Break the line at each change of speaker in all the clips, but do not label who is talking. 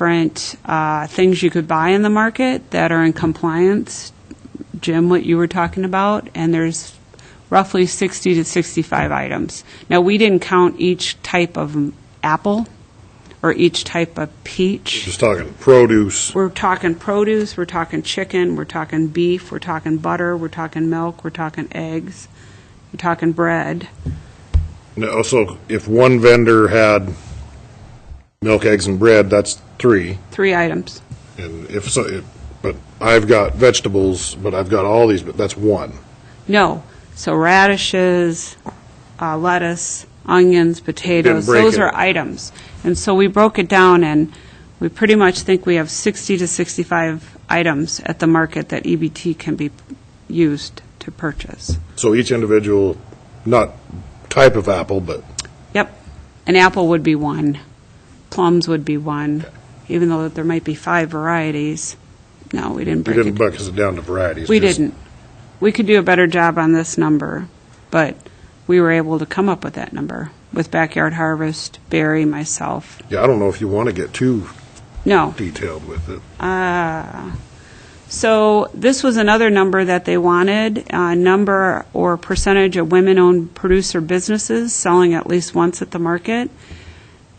different uh, things you could buy in the market that are in compliance, Jim, what you were talking about, and there's roughly 60 to 65 items. Now, we didn't count each type of apple or each type of peach.
Just talking produce,
We're talking produce, we're talking chicken, we're talking beef, we're talking butter, we're talking milk, we're talking eggs, we're talking bread.
No, so if one vendor had milk, eggs, and bread, that's three,
Three items.
and if so, if- but I've got vegetables, but I've got all these, but that's one.
No. So radishes, uh, lettuce, onions, potatoes,
break
those
it.
are items. And so we broke it down, and we pretty much think we have 60 to 65 items at the market that EBT can be used to purchase.
So each individual, not type of apple, but
Yep. An apple would be one. Plums would be one, even though there might be five varieties. No, we didn't
we
break it.
didn't bucket it down to varieties.
We
just-
didn't. We could do a better job on this number, but we were able to come up with that number with Backyard Harvest, Barry, myself.
Yeah, I don't know if you want to get too
No.
detailed with it.
So this was another number that they wanted, uh, number or percentage of women-owned producer businesses selling at least once at the market.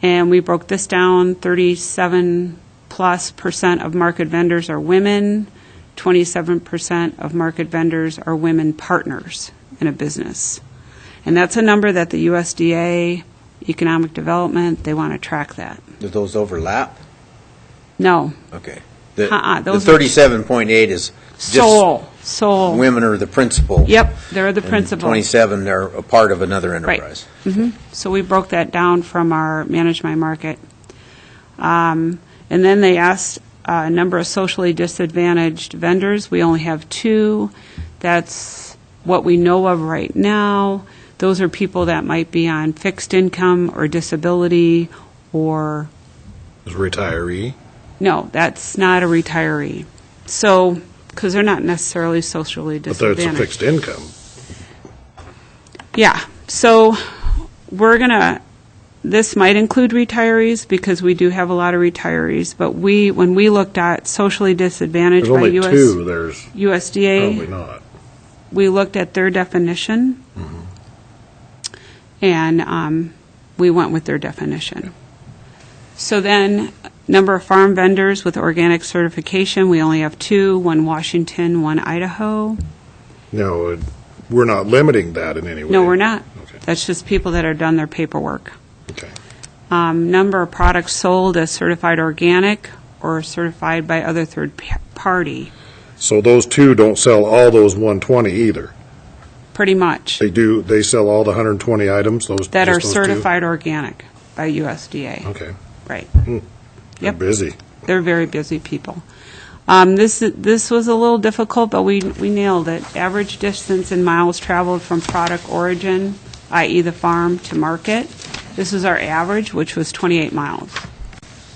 And we broke this down, 37-plus percent of market vendors are women, 27 percent of market vendors are women partners in a business. And that's a number that the USDA, Economic Development, they want to track that.
Do those overlap?
No,
Okay. The-
Uh-uh, those
The
are-
thirty-seven point eight is just
sole, sole.
women are the principal.
Yep, they're the
and
principal.
Twenty-seven are a part of another
Right.
enterprise.
hmm So we broke that down from our Manage My Market. Um, And then they asked uh, a number of socially disadvantaged vendors. We only have two. That's what we know of right now. Those are people that might be on fixed income or disability or,
Retiree.
no, that's not a retiree. So, because they're not necessarily socially
But that's a
disadvantaged.
fixed income.
Yeah, so we're going to, this might include retirees because we do have a lot of retirees, but we, when we looked at socially disadvantaged
There's
by
only two,
US
there's probably
USDA,
not.
we looked at their definition,
Mm-hmm.
and um, we went with their definition. So then, number of farm vendors with organic certification, we only have two, one Washington, one Idaho.
No, it- we're not limiting that in any way.
No, we're not.
Okay.
That's just people that have done their paperwork.
Okay.
um, number of products sold as certified organic or certified by other third p- party,
So those two don't sell all those 120 either.
pretty much,
They do, they sell all the 120 items, those.
that are
just Oh. those two?
certified organic by USDA,
Okay.
right.
They're
Yep.
busy.
They're very busy people. Um, This, this was a little difficult, but we, we nailed it. Average distance in miles traveled from product origin, i.e. the farm, to market. This is our average, which was 28 miles.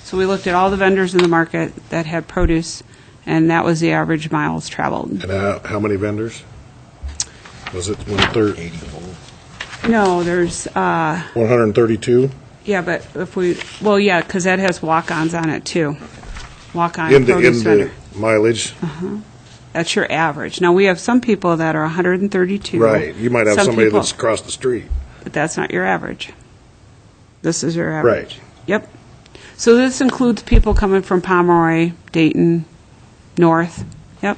So we looked at all the vendors in the market that had produce, and that was the average miles traveled.
And how, how many vendors? Was it one thir-
No, there's, uh,
132?
yeah, but if we, well, yeah, because that has walk-ons on it, too. Walk-on
In the,
produce Mm-hmm.
in
vendor.
the mileage?
That's your average. Now, we have some people that are 132.
Right. You might have
Some
somebody
people-
that's across the street.
But that's not your average. This is your average.
Right.
Yep. So this includes people coming from Pomeroy, Dayton, north. Yep.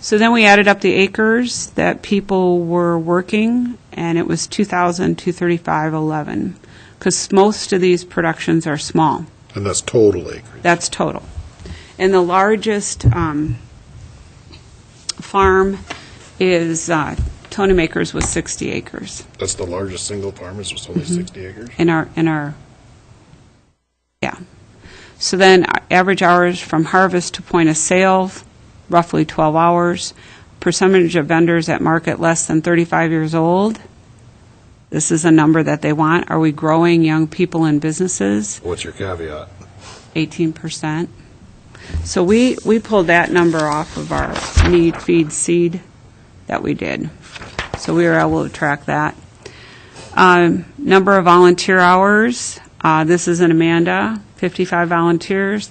So then we added up the acres that people were working, and it was 2,235.11, because most of these productions are small.
And that's total acreage.
That's total. And the largest um, farm is uh, Tony Maker's with 60 acres
That's the largest single farm is it's only
Mm-hmm.
60 acres?
in our, in our, yeah. So then, uh, average hours from harvest to point of sale, roughly 12 hours. Percentage of vendors at market less than 35 years old. This is a number that they want. Are we growing young people in businesses?
What's your caveat?
eighteen percent. So we, we pulled that number off of our need, feed, seed that we did. So we were able to track that. Um, number of volunteer hours, uh, this is in Amanda. 55 volunteers,